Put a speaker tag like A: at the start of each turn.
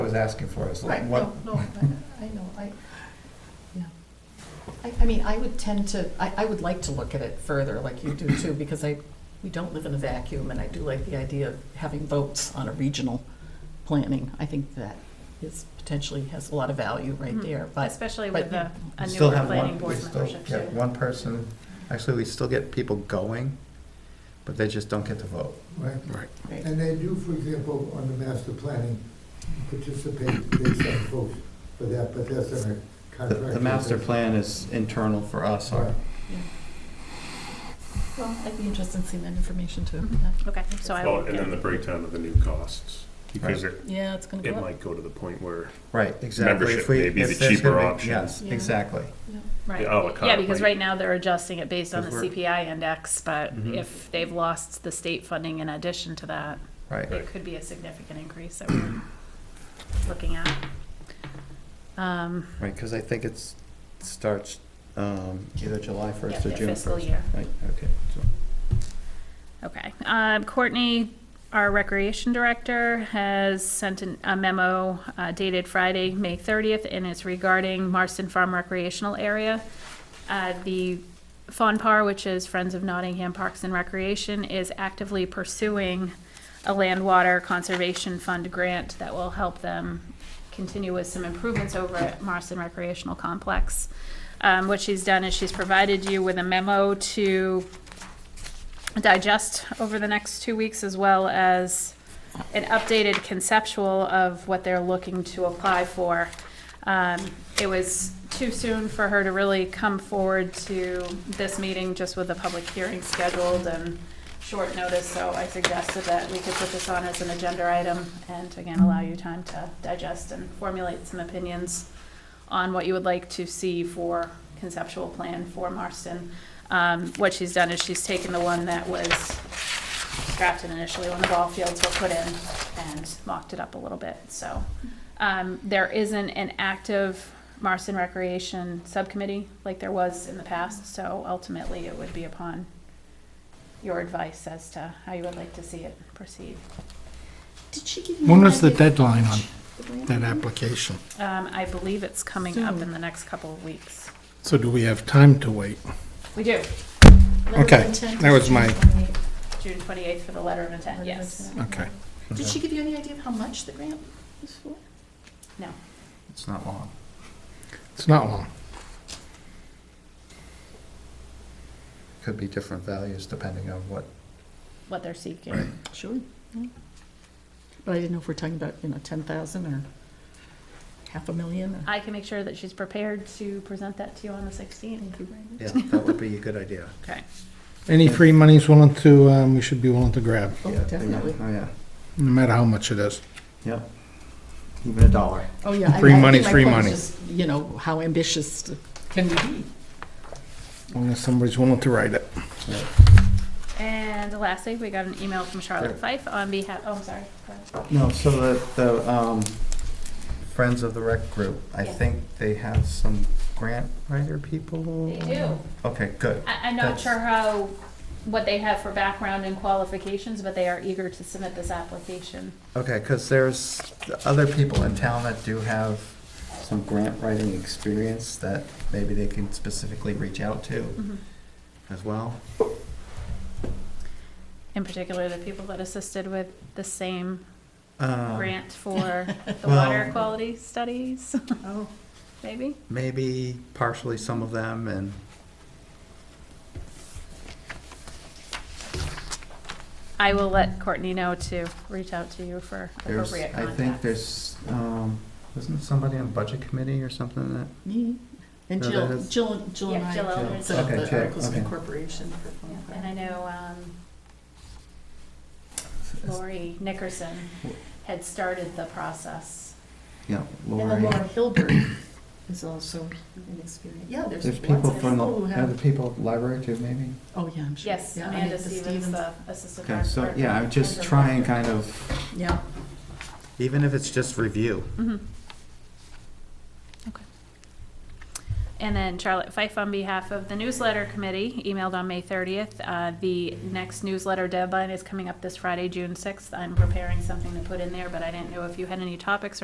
A: was asking for, is like,
B: Right,
A: what,
B: no, no, I I know, I, yeah. I, I mean, I would tend to, I, I would like to look at it further, like you do too, because I, we don't live in a vacuum, and I do like the idea of having votes on a regional planning. I think that is potentially, has a lot of value right
C: Mhm.
B: there, but,
C: Especially
B: but
C: with the, a
A: we still
C: newer
A: have
C: planning
A: one, we
C: board
A: still
C: membership
A: get
C: too.
A: one person, actually, we still get people going, but they just don't get to vote.
D: Right,
E: Right.
B: right,
D: and they do, for example, on the master planning, participate, they send votes for that, but that's on a
A: The,
D: contract.
A: the master plan is internal for us, or,
D: Right.
B: well, I'd be interested in seeing that information too.
C: Mhm.
B: yeah.
C: Okay, so I
F: Well,
C: will
F: and then the
C: get,
F: breakdown of the new costs, because it,
B: Yeah, it's gonna go
F: it
B: up.
F: might go to the point where,
A: right, exactly. If
F: Membership
A: we-
F: may be
A: if
F: the
A: there's
F: cheaper
A: gonna be-
F: option.
A: Yes,
B: Yeah.
A: exactly.
C: right.
F: the à la carte
C: Yeah, because
F: rate.
C: right now they're adjusting it based on the
A: 'Cause we're-
C: CPI index, but
F: Mm-hmm.
A: Mhm.
C: if they've lost the state funding in addition to that,
A: Right.
C: it could be a significant increase that we're looking at. Um,
A: Right, because I think it's, it starts um, either July
C: yeah,
A: 1st or
C: the
A: June
C: fiscal
A: 1st.
C: year.
A: Right, okay. so-
C: Okay. Um, Courtney, our recreation director, has sent an, a memo uh, dated Friday, May 30th, and it's regarding Marston Farm Recreational Area. Uh, the FONPAR, which is Friends of Nottingham Parks and Recreation, is actively pursuing a land water conservation fund grant that will help them continue with some improvements over at Marston Recreational Complex. Um, what she's done is she's provided you with a memo to digest over the next two weeks, as well as an updated conceptual of what they're looking to apply for. Um, It was too soon for her to really come forward to this meeting, just with the public hearing scheduled and short notice, so I suggested that we could put this on as an agenda item, and again, allow you time to digest and formulate some opinions on what you would like to see for conceptual plan for Marston. Um, what she's done is she's taken the one that was drafted initially when the ball fields were put in and mocked it up a little bit, so. Um, there isn't an active Marston Recreation Subcommittee like there was in the past, so ultimately it would be upon your advice as to how you would like to see it proceed.
G: Did she give you?
E: When
G: an
E: was the
G: idea of
E: deadline on
G: the grant
E: that
G: amount?
E: application?
C: Um, I believe it's coming up in the next couple of weeks.
E: So do we have time to wait?
C: We do,
B: Letter of
E: Okay,
B: intent
E: that
B: is
E: was
B: June
E: my-
B: 28th.
C: June twenty-eighth for the letter of intent, yes.
E: Okay.
B: Did she give you any idea of how much the grant was for?
C: No,
A: It's not long.
E: It's not long.
A: Could be different values depending on what,
C: what they're seeking.
B: Sure. yeah. But I didn't know if we're talking about, you know, ten thousand or half a million or.
C: I can make sure that she's prepared to present that to you on the sixteenth.
A: yeah, that would be a good idea.
C: Okay.
E: Any free money's willing to, um, we should be willing to grab,
B: Oh,
A: Yeah, they-
B: definitely.
A: Oh, yeah,
E: no matter how much it is.
A: yeah. Even a dollar.
B: Oh, yeah. I-
E: Free
B: I think
E: money,
B: my
E: free
B: point is
E: money.
B: just, You know, how ambitious can we be?
E: As long as somebody's willing to write it.
C: And lastly, we got an email from Charlotte
A: Sure.
C: Fife on behalf, oh, I'm sorry. Go ahead.
A: No, so the, the um, Friends of the Rec Group, I
C: Yeah.
A: think they have some grant writer people?
C: They do.
A: Okay, good.
C: I, I'm not
A: That's-
C: sure how, what they have for background and qualifications, but they are eager to submit this application.
A: Okay, because there's other people in town that do have some grant writing experience that maybe they can specifically reach out
C: Mm-hmm.
A: to as well.
C: In particular, the people that assisted with the same
A: Um,
C: grant for the
A: Well-
C: water quality studies,
B: Oh.
C: maybe?
A: Maybe partially some of them and,
C: I will let Courtney know to reach out to you for
A: There's,
C: appropriate
A: I
C: contacts.
A: think there's, um, isn't somebody on budget committee or something that?
B: Me? And
A: No, that
B: Jill,
A: is-
B: Jill, Jill and
C: Yeah, Jill
B: I
C: Eldridge.
B: set up
A: Okay,
B: the
A: Jill,
B: Articles of
A: okay.
B: Incorporation for phone
C: Yeah, And I know um, Lori Nickerson had started the process.
A: Yeah,
B: And then
A: Lori.
B: Laura Hilbert is also an experienced, yeah, there's
A: There's
B: lots of
A: people
B: people
A: from the,
B: who
A: are the
B: have.
A: people at the library too, maybe?
B: Oh, yeah, I'm sure.
C: Yes,
B: Yeah, I mean,
C: Amanda
B: the
C: Stevens, the assistant.
A: Okay, so,
C: director.
A: yeah, I'm just trying kind of,
B: Yeah.
A: even if it's just review.
C: Mhm. Okay. And then Charlotte Fife, on behalf of the newsletter committee, emailed on May 30th. Uh, The next newsletter deadline is coming up this Friday, June 6th. I'm preparing something to put in there, but I didn't know if you had any topics or